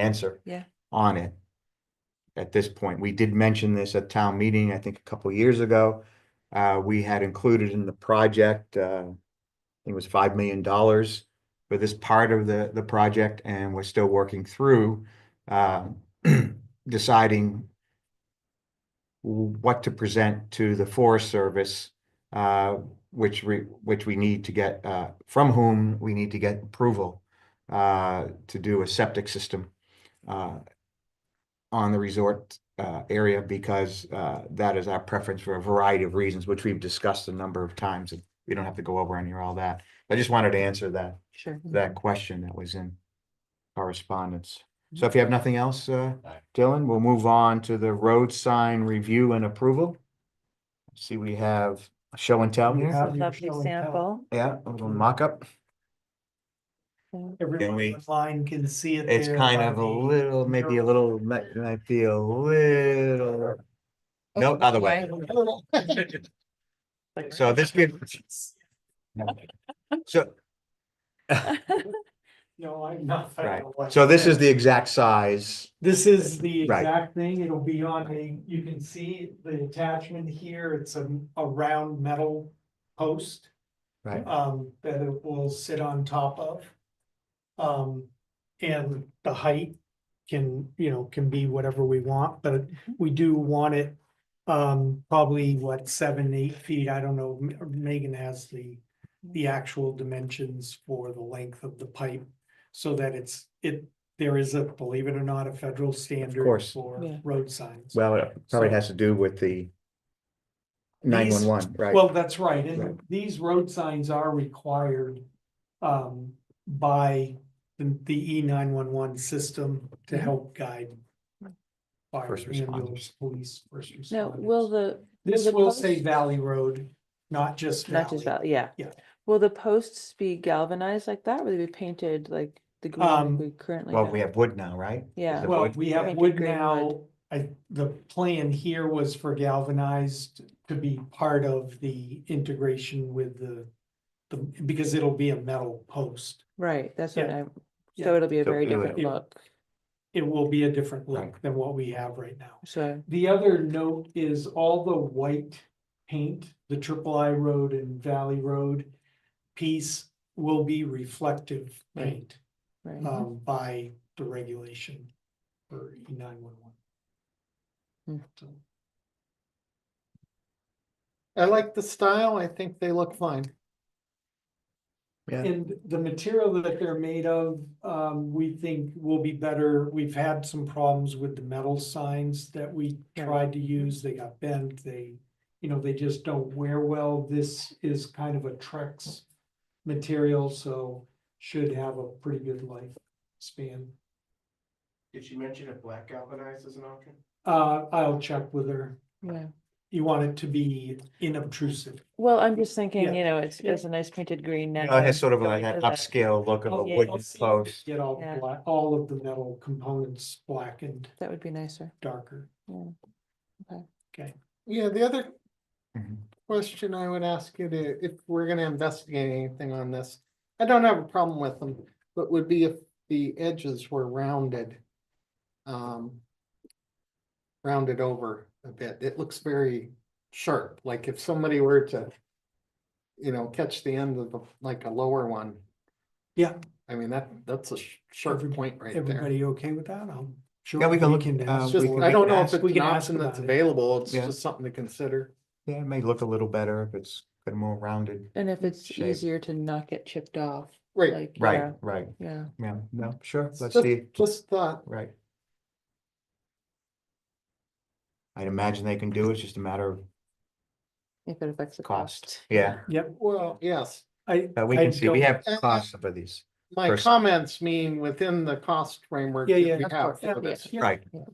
answer. Yeah. On it. At this point, we did mention this at town meeting, I think a couple years ago. Uh, we had included in the project, uh, I think it was five million dollars for this part of the, the project and we're still working through, uh, deciding what to present to the Forest Service, uh, which we, which we need to get, uh, from whom we need to get approval uh, to do a septic system uh, on the resort uh, area because uh, that is our preference for a variety of reasons, which we've discussed a number of times. and We don't have to go over any of all that. I just wanted to answer that, Sure. that question that was in correspondence. So if you have nothing else, uh, Dylan, we'll move on to the road sign review and approval. See, we have a show and tell We here. have- Lovely example. Yeah, a little mock-up. we- Everyone online can see it. It's there kind by of a the- little, maybe a little, might, might be a little. No, Okay, other way. So this gives, so, No, I'm not. I don't right, know what- so this is the exact size, This is the Right. exact thing. It'll be on a, you can see the attachment here. It's a, a round metal post. right? um, that it will sit on top of. Um, and the height can, you know, can be whatever we want, but we do want it. Um, probably what, seven, eight feet, I don't know, M- Megan has the, the actual dimensions for the length of the pipe. So that it's, it, there is a, believe it or not, a federal standard course. for Yeah. road signs. Well, it probably So- has to do with the nine-one-one, right? Well, that's right, and Right. these road signs are required um by the the E nine one one system to help guide. Fire, Mm-hmm. First responders. ambulance, police, first responders. No, will the. This the will say post- Valley Road, not just Not just Valley. about, yeah. Yeah. Will the posts be galvanized like that? Will they be painted like the green Um, we currently? Well, have? we have wood now, right? Yeah. the Well, wood. we Painted have wood green now, I, the plan here was for galvanized to be part of the integration with the. The, because it'll be a metal post. Right, that's what Yeah. I, Yeah. so it'll be a So very it'll- different Yeah. look, it will be a different Right. look than what we have right now. so. The other note is all the white paint, the Triple I Road and Valley Road piece will be reflective Right. paint right. um by the regulation for E nine one one. I like the style. I think they look fine. Yeah. And the material that they're made of, um, we think will be better. We've had some problems with the metal signs that we Yeah. tried to use. They got bent, they, you know, they just don't wear well. This is kind of a Trex material, so should have a pretty good life span. Did she mention if black galvanized is an option? Uh, I'll check with her. Yeah. You want it to be inobtrusive. Well, I'm just thinking, Yeah. you know, it's, Yeah. it's a nice painted green You now. know, It has sort of like going an to that. upscale look of a Oh, I'll- yeah, wooden I'll Oh, see if we post. Get all Yeah. black, all of the metal components blackened That would be nicer. darker. Yeah, the other Mhm. question I would ask you to, if we're gonna investigate anything on this, I don't have a problem with them, but would be if the edges were rounded. Um. Rounded over a bit, it looks very sharp, like if somebody were to. You know, catch the end of the, like a lower one, Yeah, I mean, that, that's a sh- sharp Every- point right there. everybody okay with that? I'm sure. Yeah, we can look in, uh, ask It's we just, can- for I it. don't know can if ask- it's we an can ask option that's about it. available, it's Yeah. just something to consider. Yeah, it may look a little better if it's a bit more rounded. And if it's Shape. easier to not get chipped off, Right, like. Mm, Right, right, Yeah. yeah. yeah, no, sure, let's Just- see, just thought, right. I'd imagine they can do it, it's just a matter of, If it affects the Cost. cost. yeah, Yep, well, yes, I. but we I can see, we don't- have costs for these, My pers- comments mean within the cost framework. Yeah, that yeah. we Of have course, for yeah. this. Yeah. right? Yeah.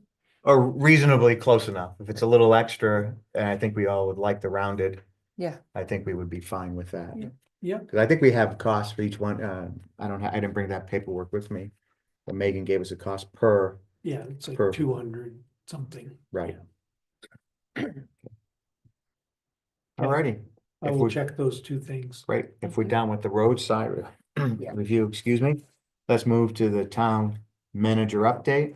Or reasonably close enough, if it's a little extra, and I think we all would like the rounded. Yeah. I think we would be fine with that. Yeah. Yeah. Cause I think we have costs for each one, uh, I don't, ha- I didn't bring that paperwork with me, but Megan gave us a cost per, Yeah, it's like Perfect. two hundred something. right? Yeah. Alrighty. I If will we- check those two things. Great, if we're Okay. done with the roadside re- review, excuse me, let's move to the town manager update.